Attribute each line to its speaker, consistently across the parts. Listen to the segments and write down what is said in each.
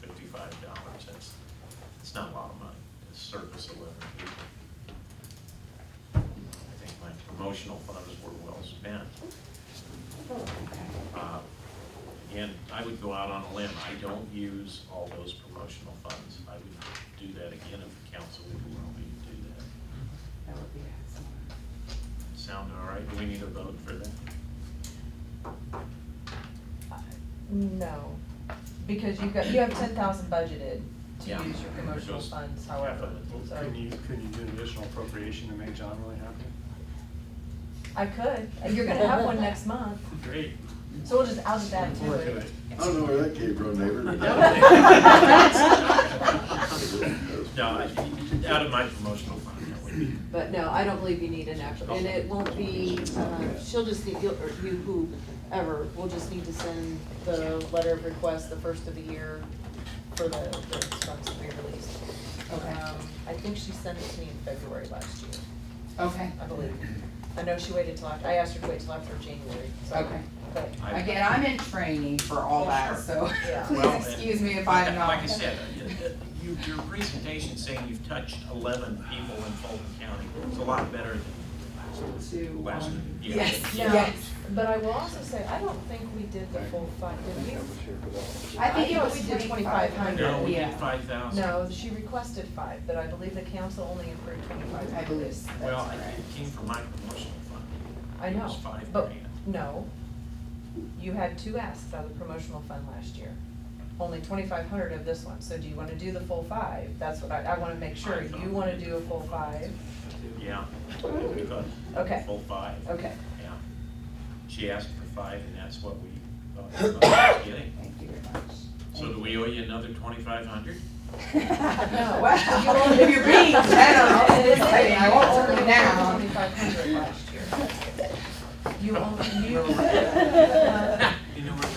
Speaker 1: fifty-five dollars, that's, it's not a lot of money, to service eleven people. I think my promotional funds were well spent.
Speaker 2: Oh,
Speaker 1: Uh, Again, I would go out on a limb, I don't use all those promotional funds, I would do that again if the council would allow me to do that.
Speaker 3: That would be excellent.
Speaker 1: Sound all right, do we need a vote for that?
Speaker 2: No, because you've got, you have ten thousand budgeted to
Speaker 1: Yeah.
Speaker 2: use your promotional
Speaker 1: Just
Speaker 2: funds,
Speaker 1: half
Speaker 2: however,
Speaker 1: of it.
Speaker 2: so.
Speaker 4: Couldn't you, couldn't you do an additional appropriation to make John really happy?
Speaker 2: I could, and you're gonna have one next month,
Speaker 1: Great.
Speaker 2: so we'll just, I'll just add to
Speaker 4: Look at
Speaker 2: it.
Speaker 5: I don't know where that came from, neighbor. but that-
Speaker 1: No, I- out of my promotional fund, that would be,
Speaker 3: But no, I don't believe you need an actual, and it won't be, uh, she'll just need, you'll- or you, whoever, will just need to send the letter of request the first of the year for the, the funds to be released.
Speaker 2: Okay.
Speaker 3: Um, I think she sent it to me in February last year,
Speaker 2: Okay.
Speaker 3: I believe. I know she waited till after, I asked her to wait till after January, so.
Speaker 2: Okay.
Speaker 3: But
Speaker 1: I-
Speaker 2: Again, I'm in training for all that, so
Speaker 3: Yeah.
Speaker 1: Oh, Well,
Speaker 2: please excuse me if I'm not.
Speaker 1: Like I said, uh, you, your presentation saying you've touched eleven people in Fulton County, it's a lot better than
Speaker 2: To,
Speaker 1: last, last,
Speaker 2: um,
Speaker 1: yeah.
Speaker 2: Yes,
Speaker 3: Now,
Speaker 2: yes.
Speaker 3: But I will also say, I don't think we did the full five, did we? I think it was twenty-five hundred.
Speaker 1: No, we did
Speaker 2: Yeah.
Speaker 1: five thousand.
Speaker 3: No, she requested five, but I believe the council only approved twenty-five.
Speaker 2: I believe that's correct.
Speaker 1: Well, I- it came from my promotional fund.
Speaker 3: I
Speaker 1: It
Speaker 3: know,
Speaker 1: was five
Speaker 3: but,
Speaker 1: grand.
Speaker 3: no. You had two asks out of the promotional fund last year, only twenty-five hundred of this one, so do you wanna do the full five? That's what I, I wanna make sure, you wanna do a full five?
Speaker 1: Yeah.
Speaker 3: Okay.
Speaker 1: Full five.
Speaker 3: Okay,
Speaker 1: Yeah. She asked for five, and that's what we thought we was getting.
Speaker 2: Thank you very much.
Speaker 1: So do we owe you another twenty-five hundred?
Speaker 3: no.
Speaker 2: Wow,
Speaker 3: You only-
Speaker 2: you're being generous.
Speaker 3: No, it isn't.
Speaker 2: Exciting. I won't turn
Speaker 3: You
Speaker 2: it down.
Speaker 3: only twenty-five hundred last year. You only, you.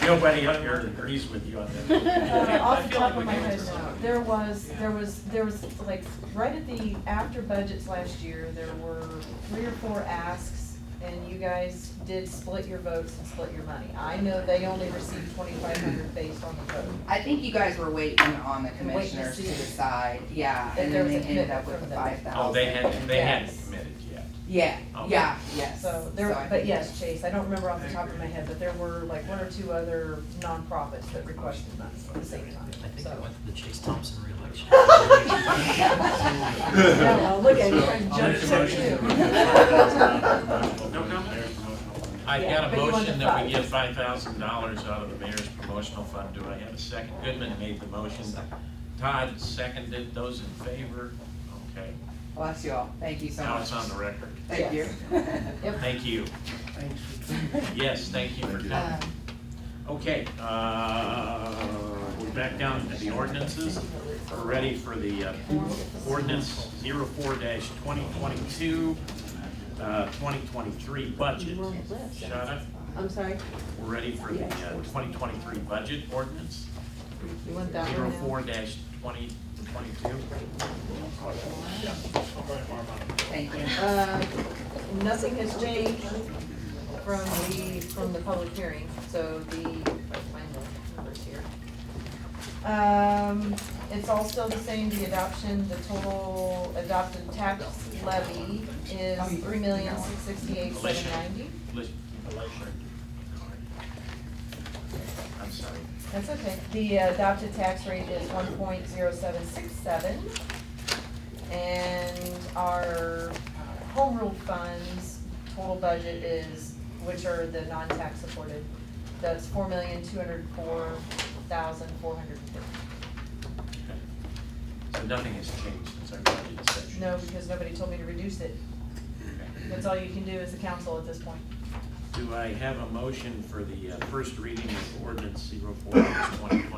Speaker 1: Nobody up here agrees with you on
Speaker 3: Uh,
Speaker 1: that.
Speaker 3: off the top of my head, no. There was, there was, there was, like, right at the, after budgets last year, there were three or four asks, and you guys did split your votes and split your money. I know they only received twenty-five hundred based on the vote.
Speaker 2: I think you guys were waiting on the
Speaker 3: Waiting to
Speaker 2: commissioners to
Speaker 3: see.
Speaker 2: decide, yeah,
Speaker 3: If
Speaker 2: and
Speaker 3: there
Speaker 2: then
Speaker 3: was
Speaker 2: they
Speaker 3: a
Speaker 2: ended up
Speaker 3: commitment
Speaker 2: with
Speaker 3: from
Speaker 2: the
Speaker 3: them.
Speaker 2: five thousand.
Speaker 1: Oh, they hadn't, they hadn't
Speaker 3: Yes.
Speaker 1: committed yet.
Speaker 2: Yeah,
Speaker 1: Oh.
Speaker 2: yeah, yes.
Speaker 3: So there,
Speaker 2: I
Speaker 3: but
Speaker 2: think-
Speaker 3: yes, Chase, I don't remember off the top of my head, but there were like one or two other nonprofits that requested money at the same time,
Speaker 6: I think I
Speaker 3: so.
Speaker 6: went to the Chase Thompson reelection.
Speaker 3: No, look at you, trying to
Speaker 4: I'll
Speaker 3: judge
Speaker 4: make a
Speaker 3: her
Speaker 4: motion to
Speaker 3: too.
Speaker 4: approve the-
Speaker 1: No comment?
Speaker 4: Mayor's promotional fund.
Speaker 1: I
Speaker 3: Yeah,
Speaker 1: got a
Speaker 3: but you want
Speaker 1: motion
Speaker 3: the
Speaker 1: that we
Speaker 3: five.
Speaker 1: give five thousand dollars out of the mayor's promotional fund. Do I have a second? Goodman made the motion. Todd seconded. Those in favor? Okay.
Speaker 2: Bless you all, thank you so
Speaker 1: Now
Speaker 2: much.
Speaker 1: it's on the record.
Speaker 2: Thank you.
Speaker 3: Yep.
Speaker 1: Thank you. Yes, thank you for
Speaker 5: Thank you.
Speaker 3: Um,
Speaker 1: coming. Okay, uh, we're back down to the ordinances. We're ready for the uh, ordinance 04-2022, uh, 2023 budget. Shawna,
Speaker 3: I'm sorry,
Speaker 1: we're ready for the uh, 2023 budget ordinance,
Speaker 3: you want that one now?
Speaker 1: 04-2022.
Speaker 2: Thank you.
Speaker 3: Uh, Nothing has changed from the, from the public hearing, so the, if I find the numbers here. Um, it's all still the same, the adoption, the total adopted tax levy is three million, six sixty-eight, seven ninety.
Speaker 1: Lish- I'm sorry.
Speaker 3: That's okay. The adopted tax rate is one point zero seven six seven. And our uh, home rule funds total budget is, which are the non-tax supported, that's four million, two hundred four thousand, four hundred fifty.
Speaker 1: Okay. So nothing has changed since our budget session.
Speaker 3: No, because nobody told me to reduce it.
Speaker 1: Okay.
Speaker 3: That's all you can do as a council at this point.
Speaker 1: Do I have a motion for the uh, first reading of ordinance 04 2022?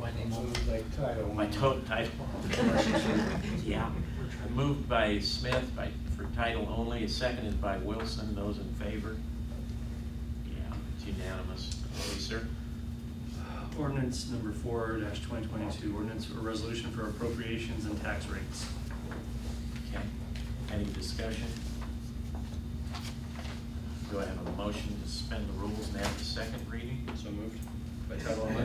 Speaker 6: My name's
Speaker 5: Move like title.
Speaker 1: My to- title. Yeah. Moved by Smith by, for title only, seconded by Wilson. Those in favor? Yeah, it's unanimous. Okay, sir?
Speaker 4: Ordinance number four dash twenty twenty-two, ordinance or resolution for appropriations and tax rates.
Speaker 1: Okay. Any discussion? Do I have a motion to suspend the rules and have the second reading?
Speaker 4: So moved.